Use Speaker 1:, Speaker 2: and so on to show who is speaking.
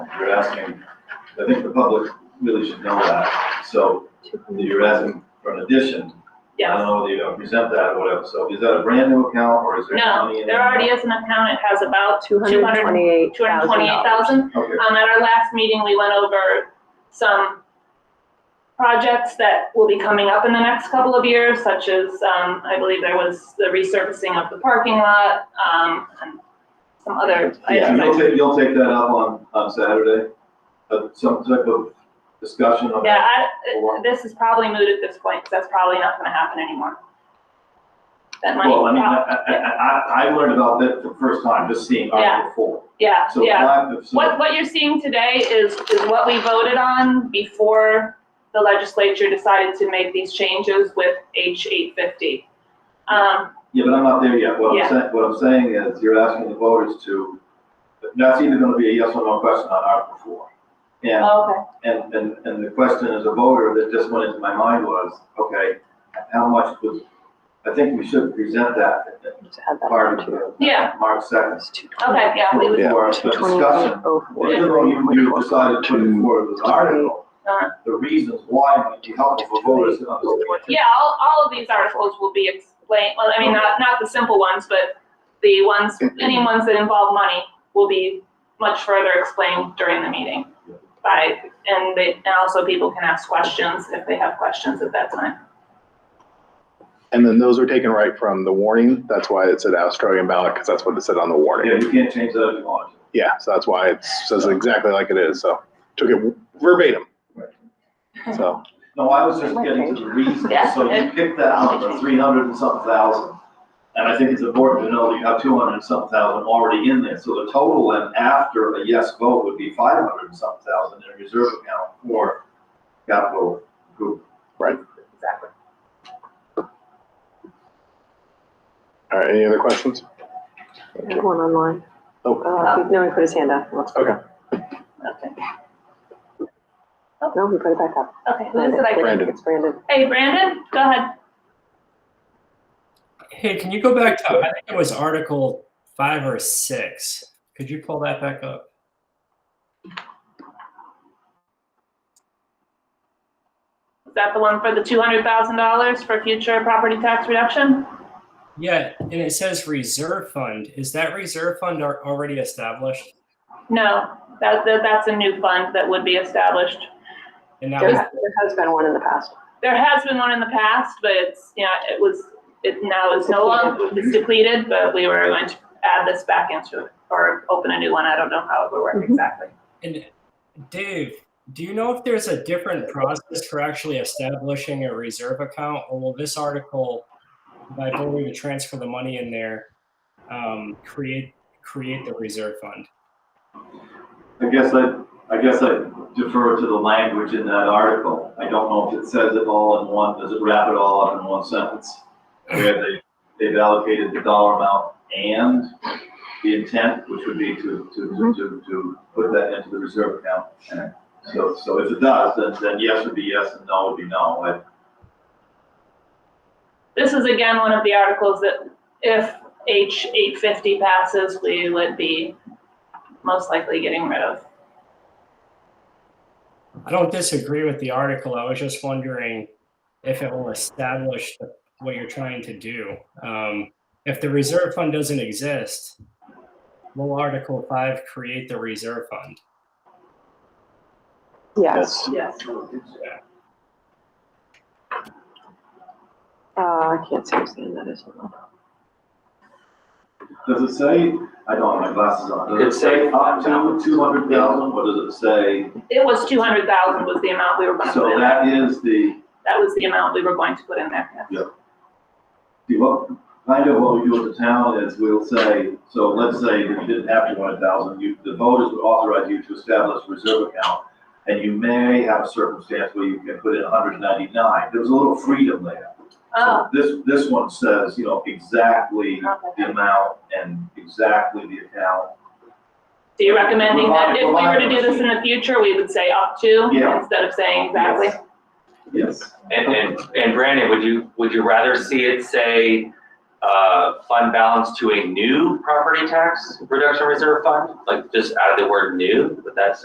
Speaker 1: you're asking, I think the public really should know that. So you're asking for an addition. I don't
Speaker 2: Yes,
Speaker 1: know whether you're gonna present that or whatever. So is that a brand new account or is there money
Speaker 2: no,
Speaker 1: in it?
Speaker 2: there already is an account, it has about two hundred and twenty-eight thousand.
Speaker 1: Okay,
Speaker 2: Um, at our last meeting, we went over some projects that will be coming up in the next couple of years, such as, um, I believe there was the resurfacing of the parking lot, um, and some other
Speaker 1: yeah, you'll
Speaker 2: items.
Speaker 1: take, you'll take that up on, on Saturday, uh, some type of discussion on
Speaker 2: Yeah,
Speaker 1: that.
Speaker 2: I, this is probably moot at this point, 'cause that's probably not gonna happen anymore. That money,
Speaker 1: Well, I mean, I, I, I, I I learned about that the first time, just seeing Article Four.
Speaker 2: yeah,
Speaker 1: So
Speaker 2: yeah.
Speaker 1: five, if so-
Speaker 2: What, what you're seeing today is, is what we voted on before the legislature decided to make these changes with H eight fifty. Um,
Speaker 1: Yeah, but I'm not there yet. What
Speaker 2: Yeah.
Speaker 1: I'm saying, what I'm saying is you're asking the voters to, that's either gonna be a yes or no question on Article four. And,
Speaker 2: okay,
Speaker 1: and, and, and the question as a voter that just went into my mind was, okay, how much was, I think we should present that at the party. for
Speaker 2: Yeah.
Speaker 1: March second.
Speaker 2: okay, yeah, we would,
Speaker 3: Yeah.
Speaker 1: For a discussion. Even though you, you decided to put it forward with an article,
Speaker 2: Uh-huh.
Speaker 1: the reasons why might be helpful for voters to understand.
Speaker 2: yeah, all, all of these articles will be explained, well, I mean, not, not the simple ones, but the ones, any ones that involve money will be much further explained during the meeting. By, and they, and also people can ask questions if they have questions at that time.
Speaker 3: And then those were taken right from the warning. That's why it said Australian ballot, because that's what it said on the warning.
Speaker 1: Yeah, you can't change that if you want to.
Speaker 3: Yeah, so that's why it says exactly like it is. So took it verbatim. So,
Speaker 1: No, I was just getting to the reason,
Speaker 2: Yeah.
Speaker 1: so you picked that out for three hundred and something thousand. And I think it's important to know that you have two hundred and something thousand already in there, so the total then after a yes vote would be five hundred and something thousand in a reserve account for capital group.
Speaker 4: Exactly.
Speaker 3: all right, any other questions?
Speaker 5: There's one online.
Speaker 3: Oh.
Speaker 5: Uh, No, he put his hand up. Looks-
Speaker 3: Okay,
Speaker 2: Okay,
Speaker 5: No, he put it back up.
Speaker 2: okay, who is it I
Speaker 3: Brandon.
Speaker 5: It's Brandon.
Speaker 2: Hey, Brandon, go ahead.
Speaker 6: Hey, can you go back to, I think it was Article five or six. Could you pull that back up?
Speaker 2: Is that the one for the two hundred thousand dollars for future property tax reduction?
Speaker 6: Yeah, and it says reserve fund. Is that reserve fund al- already established?
Speaker 2: No, that, that, that's a new fund that would be established.
Speaker 6: And that
Speaker 5: There
Speaker 6: was,
Speaker 5: ha- there has been one in the past.
Speaker 2: There has been one in the past, but it's, you know, it was, it now is no longer, it's depleted, but we were going to add this back into it or open a new one. I don't know how it would work
Speaker 5: Mhm.
Speaker 2: exactly.
Speaker 6: and Dave, do you know if there's a different process for actually establishing a reserve account? Or will this article, by voting to transfer the money in there, um, create, create the reserve fund?
Speaker 1: I guess I, I guess I defer to the language in that article. I don't know if it says it all in one, does it wrap it all up in one sentence? Where they, they've allocated the dollar amount and the intent, which would be to, to, to, to, to put that into the reserve account. And So, so if it does, then, then yes would be yes and no would be no. I-
Speaker 2: This is again one of the articles that if H eight fifty passes, we would be most likely getting rid of.
Speaker 6: I don't disagree with the article. I was just wondering if it will establish what you're trying to do. Um, if the reserve fund doesn't exist, will Article Five create the reserve fund?
Speaker 5: Yes.
Speaker 3: yes.
Speaker 2: Yes.
Speaker 5: Uh, I can't see whose hand that is.
Speaker 1: Does it say, I don't have my glasses on, does it
Speaker 4: It
Speaker 1: say
Speaker 4: say-
Speaker 1: up to two hundred thousand, or does it say?
Speaker 2: It was two hundred thousand was the amount we were gonna put
Speaker 1: So
Speaker 2: in there.
Speaker 1: that is the,
Speaker 2: That was the amount we were going to put in there. yes.
Speaker 1: See, what, kind of what we do at the town is we'll say, so let's say that you didn't have two hundred thousand, you, the voters would authorize you to establish a reserve account. And you may have a circumstance where you can put in hundred ninety-nine, there was a little freedom there.
Speaker 2: Oh,
Speaker 1: So This, this one says, you know, exactly
Speaker 2: okay.
Speaker 1: the amount and exactly the account.
Speaker 2: So you're recommending that if we were to do this in
Speaker 1: Reliable.
Speaker 2: the future, we would say up to
Speaker 1: Yeah.
Speaker 2: instead of saying exactly?
Speaker 1: Yes.
Speaker 4: And, and, and Brandon, would you, would you rather see it say, uh, fund balance to a new property tax reduction reserve fund? Like just add the word new, would that